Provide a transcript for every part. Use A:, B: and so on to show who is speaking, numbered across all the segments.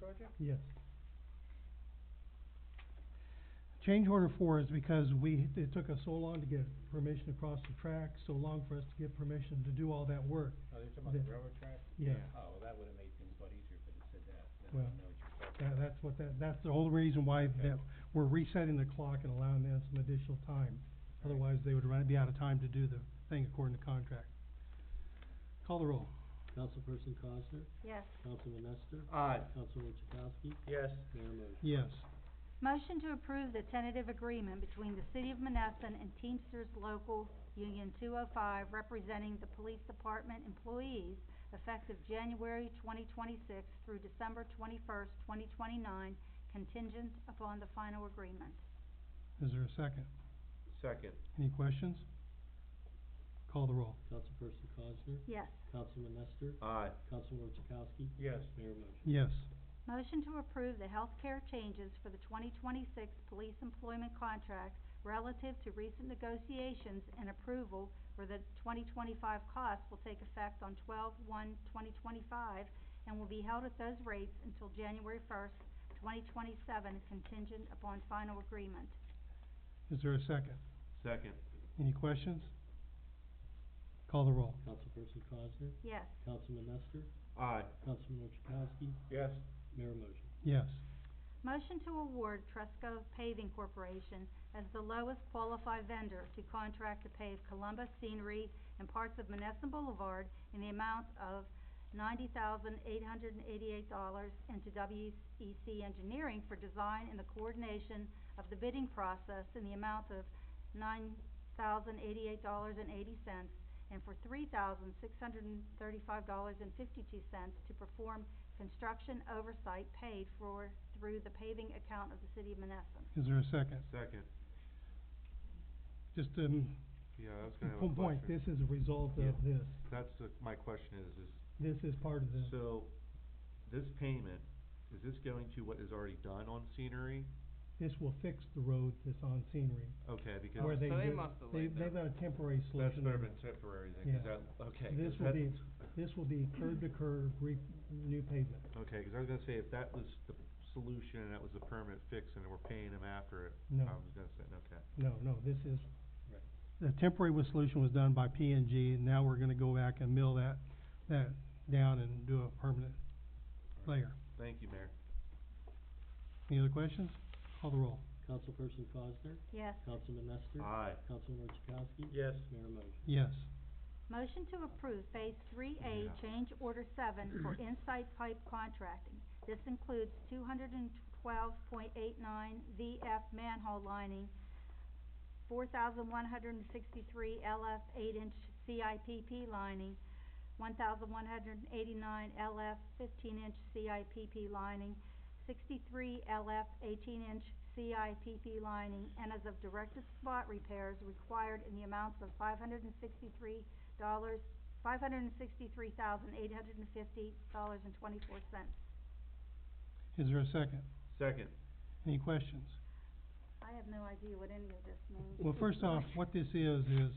A: project?
B: Yes. Change order four is because we, it took us so long to get permission to cross the track, so long for us to get permission to do all that work.
A: Oh, they're talking about the
B: The-
A: railroad track?
B: Yeah.
A: Oh, well, that would've made things a lot easier if it said that, then I
B: Well,
A: would know what you're talking
B: That,
A: about.
B: that's what that, that's the whole reason why
A: Okay.
B: that, we're resetting the clock and allowing them some additional time. Otherwise, they would run, be out of time to do the thing according to contract. Call the roll.
C: Councilperson Cosner,
D: Yes.
C: Councilman Nestor,
A: Aye.
C: Councilman Chakowski,
A: Yes.
C: Mayor motion.
B: Yes.
D: Motion to approve the tentative agreement between the City of Monessen and Teamsters Local Union two oh five representing the Police Department employees effective January twenty twenty-six through December twenty-first, twenty twenty-nine, contingent upon the final agreement.
B: Is there a second?
A: Second.
B: Any questions? Call the roll.
C: Councilperson Cosner,
D: Yes.
C: Councilman Nestor,
A: Aye.
C: Councilman Chakowski,
A: Yes.
C: Mayor motion.
B: Yes.
D: Motion to approve the healthcare changes for the twenty twenty-six police employment contract relative to recent negotiations and approval for the twenty twenty-five costs will take effect on 12-1-2025 and will be held at those rates until January first, twenty twenty-seven, contingent upon final agreement.
B: Is there a second?
A: Second.
B: Any questions? Call the roll.
C: Councilperson Cosner,
D: Yes.
C: Councilman Nestor,
A: Aye.
C: Councilman Chakowski,
A: Yes.
C: Mayor motion.
B: Yes.
D: Motion to award Tresco Paving Corporation as the lowest qualified vendor to contract to pave Columbus scenery and parts of Monessen Boulevard in the amount of ninety thousand eight hundred and eighty-eight dollars and to WEC Engineering for design and the coordination of the bidding process in the amount of nine thousand eighty-eight dollars and eighty cents and for three thousand six hundred and thirty-five dollars and fifty-two cents to perform construction oversight paid for through the paving account of the city of Monessen.
B: Is there a second?
A: Second.
B: Just, um,
A: Yeah, I was
B: one point, this is a result
A: Yeah.
B: of this.
A: That's, my question is, is
B: This is part of the,
A: So, this payment, is this going to what is already done on scenery?
B: this will fix the road that's on scenery.
A: Okay, because
B: Where
E: so
B: they,
E: they
B: did-
E: must have
B: they,
E: laid
B: they've
E: that.
B: got a temporary
A: that's
B: solution.
A: better
B: there.
A: than temporary then, 'cause
B: Yeah.
A: that, okay. 'cause
B: This will
A: that-
B: be, this will be curb to curb, re, new pavement.
A: Okay, 'cause I was gonna say, if that was the solution and that was the permanent fix and we're paying them after it, I
B: No.
A: was gonna say, okay.
B: No, no, this is,
A: Right.
B: the temporary was solution was done by P and G, and now we're gonna go back and mill that, that down and do a permanent layer.
A: Thank you, Mayor.
B: Any other questions? Call the roll.
C: Councilperson Cosner,
D: Yes.
C: Councilman Nestor,
A: Aye.
C: Councilman Chakowski,
A: Yes.
C: Mayor motion.
B: Yes.
D: Motion to approve Phase Three A
A: Yeah.
D: Change Order Seven for Insight Pipe Contracting. This includes two hundred and twelve point eight nine VF manhole lining, four thousand one hundred and sixty-three LF eight-inch CIPP lining, one thousand one hundred and eighty-nine LF fifteen-inch CIPP lining, sixty-three LF eighteen-inch CIPP lining, and as of directed spot repairs required in the amounts of five hundred and sixty-three dollars, five hundred and sixty-three thousand, eight hundred and fifty dollars and twenty-four cents.
B: Is there a second?
A: Second.
B: Any questions?
D: I have no idea what any of this means.
B: Well, first off, what this is, is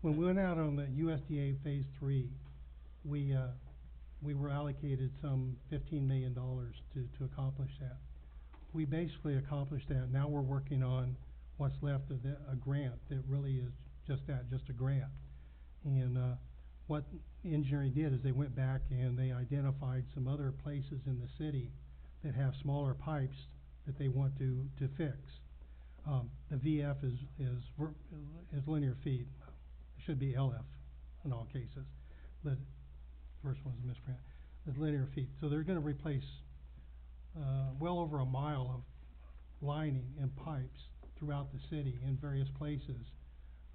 B: when we went out on the USDA Phase Three, we, uh, we were allocated some fifteen million dollars to, to accomplish that. We basically accomplished that. Now we're working on what's left of the, a grant that really is just that, just a grant. And, uh, what engineering did is they went back and they identified some other places in the city that have smaller pipes that they want to, to fix um, the VF is, is, ver- is linear feet, it should be LF in all cases, but first one's a misprint, is linear feet, so they're gonna replace, uh, well over a mile of lining and pipes throughout the city in various places,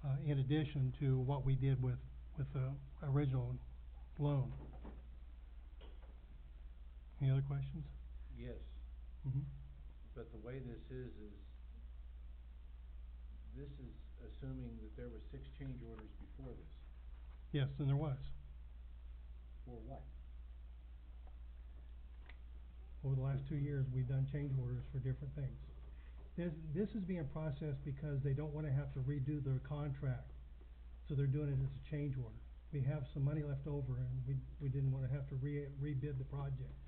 B: uh, in addition to what we did with, with the original loan. Any other questions?
F: Yes,
B: Mm-hmm.
F: but the way this is, is this is assuming that there were six change orders before this.
B: Yes, and there was,
F: For what?
B: over the last two years, we've done change orders for different things. This, this is being processed because they don't wanna have to redo their contract, so they're doing it as a change order. We have some money left over and we, we didn't wanna have to re, rebid the project.